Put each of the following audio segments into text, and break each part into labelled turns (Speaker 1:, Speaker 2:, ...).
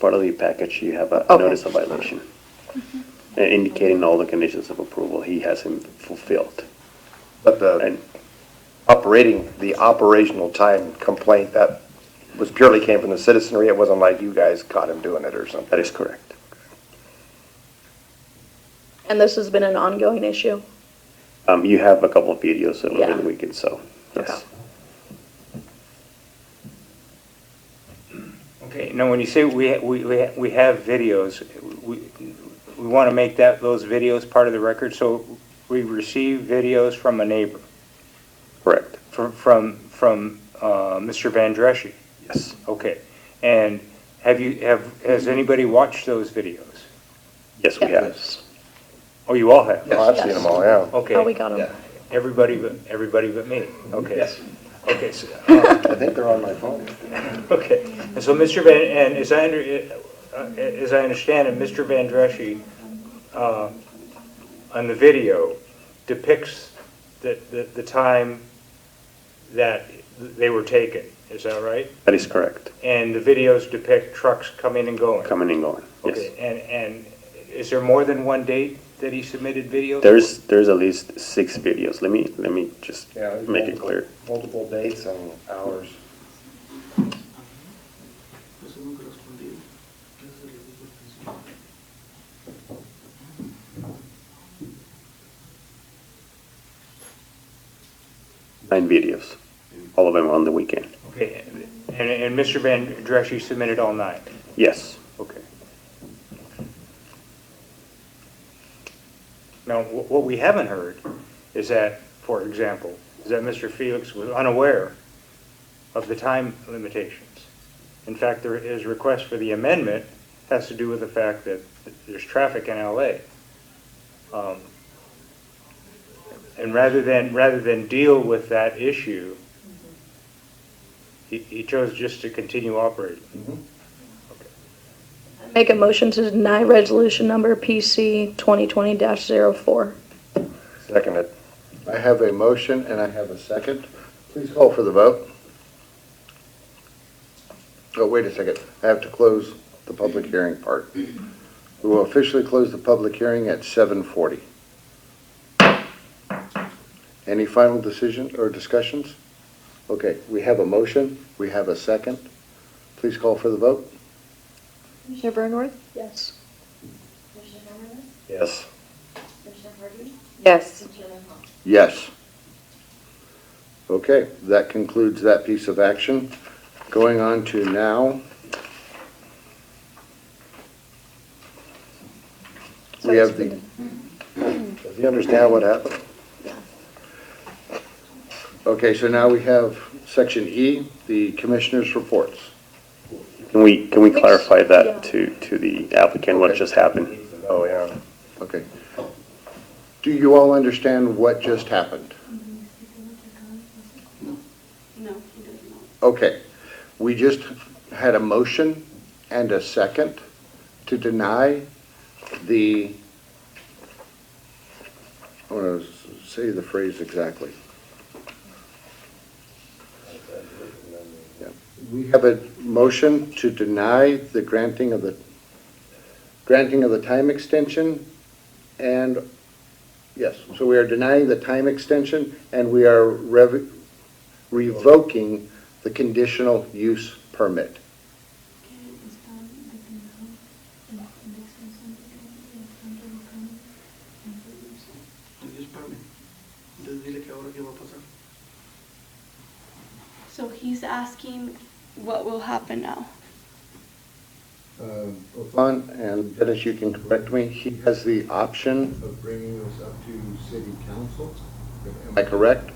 Speaker 1: Part of the package, you have a
Speaker 2: Okay.
Speaker 1: notice of violation
Speaker 3: Mm-hmm.
Speaker 1: uh, indicating all the conditions of approval he hasn't fulfilled.
Speaker 4: But the
Speaker 1: And
Speaker 4: operating, the operational time complaint, that was purely came from the citizenry. It wasn't like you guys caught him doing it or something.
Speaker 1: that is correct.
Speaker 3: And this has been an ongoing issue?
Speaker 1: Um, you have a couple of videos over
Speaker 3: Yeah.
Speaker 1: the weekend, so, yes.
Speaker 3: Okay.
Speaker 5: Okay, now, when you say we, we, we we have videos, we, we want to make that, those videos part of the record, so we receive videos from a neighbor,
Speaker 1: Correct,
Speaker 5: from, from, from, uh, Mr. Van Dreschi.
Speaker 1: yes.
Speaker 5: Okay, and have you, have, has anybody watched those videos?
Speaker 1: Yes, we
Speaker 3: Yeah.
Speaker 1: have.
Speaker 5: Oh, you all have?
Speaker 4: Oh, I've seen them all, yeah.
Speaker 3: Oh, we
Speaker 5: Okay,
Speaker 3: got them.
Speaker 5: everybody but, everybody but me, okay.
Speaker 4: Yes.
Speaker 5: Okay, so,
Speaker 4: I think they're on my phone.
Speaker 5: Okay, and so Mr. Van, and as I under, uh, as I understand it, Mr. Van Dreschi, uh, on the video depicts the, the, the time that they were taken, is that right?
Speaker 1: That is correct,
Speaker 5: And the videos depict trucks coming and going?
Speaker 1: coming and going, yes.
Speaker 5: Okay, and, and is there more than one date that he submitted videos?
Speaker 1: There's, there's at least six videos, let me, let me just
Speaker 4: Yeah, there's
Speaker 1: make it
Speaker 4: multiple.
Speaker 1: clear.
Speaker 4: Multiple dates and hours.
Speaker 6: Eso nunca respondí. ¿Qué es el error del principio?
Speaker 1: Nine videos, all of them on the weekend,
Speaker 5: Okay, and, and Mr. Van Dreschi submitted all nine?
Speaker 1: yes.
Speaker 5: Okay. Now, wh- what we haven't heard is that, for example, is that Mr. Felix was unaware of the time limitations. In fact, there- his request for the amendment has to do with the fact that there's traffic in LA. Um, And rather than, rather than deal with that issue, he, he chose just to continue operating.
Speaker 3: Make a motion to deny resolution number PC 2020-04.
Speaker 4: Second it.
Speaker 7: I have a motion and I have a second. Please call for the vote. Oh, wait a second. I have to close the public hearing part. We will officially close the public hearing at 7:40. Any final decision or discussions? Okay, we have a motion, we have a second. Please call for the vote.
Speaker 8: Commissioner Bernworth?
Speaker 3: Yes.
Speaker 8: Commissioner Hammerman?
Speaker 4: Yes.
Speaker 8: Commissioner Harvey?
Speaker 2: Yes.
Speaker 8: And Chairman Hall?
Speaker 7: Yes. Okay, that concludes that piece of action. Going on to now. We have the,
Speaker 4: Does he understand what happened?
Speaker 7: okay, so now we have section E, the commissioners' reports.
Speaker 1: Can we, can we
Speaker 3: Which-
Speaker 1: clarify
Speaker 3: yeah.
Speaker 1: that to, to the applicant, what
Speaker 7: Okay.
Speaker 1: just happened?
Speaker 4: Oh, yeah.
Speaker 7: Okay. Do you all understand what just happened?
Speaker 8: No, he does not.
Speaker 7: Okay, we just had a motion and a second to deny the, I want to say the phrase exactly. Yeah. We have a motion to deny the granting of the, granting of the time extension and, yes, so we are denying the time extension and we are rev- revoking the conditional use permit.
Speaker 6: Entonces, espérame. Entonces dile que ahora qué va a pasar.
Speaker 9: So he's asking what will happen now.
Speaker 6: Um,
Speaker 7: Fun, and Dennis, you can correct me, he has the option,
Speaker 6: Of bringing this up to city council?
Speaker 7: am I correct?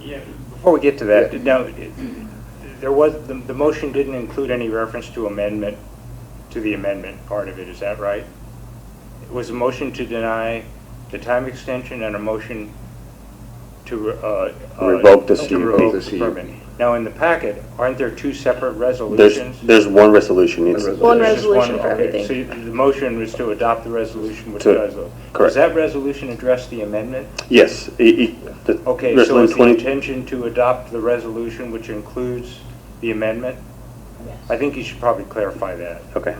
Speaker 5: Yeah, before we get to that, now, it- there was, the, the motion didn't include any reference to amendment, to the amendment part of it, is that right? It was a motion to deny the time extension and a motion to, uh. uh,
Speaker 1: Revoke the
Speaker 5: to
Speaker 1: CUP.
Speaker 5: revoke the
Speaker 7: CUP.
Speaker 5: permit. Now, in the packet, aren't there two separate
Speaker 1: There's,
Speaker 5: resolutions?
Speaker 1: there's one resolution, it's,
Speaker 7: One
Speaker 3: One
Speaker 5: There's just one-
Speaker 3: resolution for
Speaker 5: okay,
Speaker 3: everything.
Speaker 5: So you- the motion was to adopt the resolution which
Speaker 1: To-
Speaker 5: does those.
Speaker 1: correct.
Speaker 5: Does that resolution address the amendment?
Speaker 1: yes, it, it, the
Speaker 5: Okay, so
Speaker 1: resolution
Speaker 5: is the
Speaker 1: 20
Speaker 5: intention to adopt the resolution which includes the amendment? I think you should probably clarify that.
Speaker 1: Okay.